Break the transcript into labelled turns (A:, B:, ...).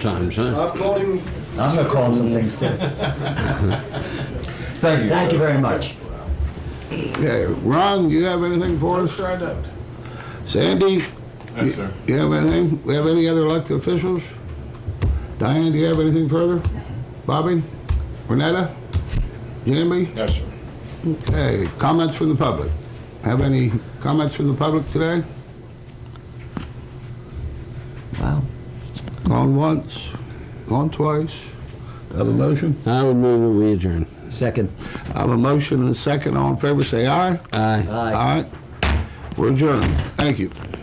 A: times, huh?
B: I've called him,
C: I'm gonna call him some things too.
D: Thank you.
C: Thank
D: sir.
C: you very much.
A: Okay, Ron, you have anything for us?
B: sure I don't.
A: Sandy?
E: Yes, sir.
A: You have anything? We have any other elected officials? Diane, do you have anything further? Bobby? Renetta? Jamie?
E: Yes, sir.
A: Okay, comments from the public. Have any comments from the public today?
C: Wow.
A: Gone once, gone twice. Have a motion?
F: I would move that we adjourn.
C: Second.
A: I have a motion and a second. All in favor, say aye.
F: Aye.
C: Aye.
A: Aye. We're adjourned. Thank you.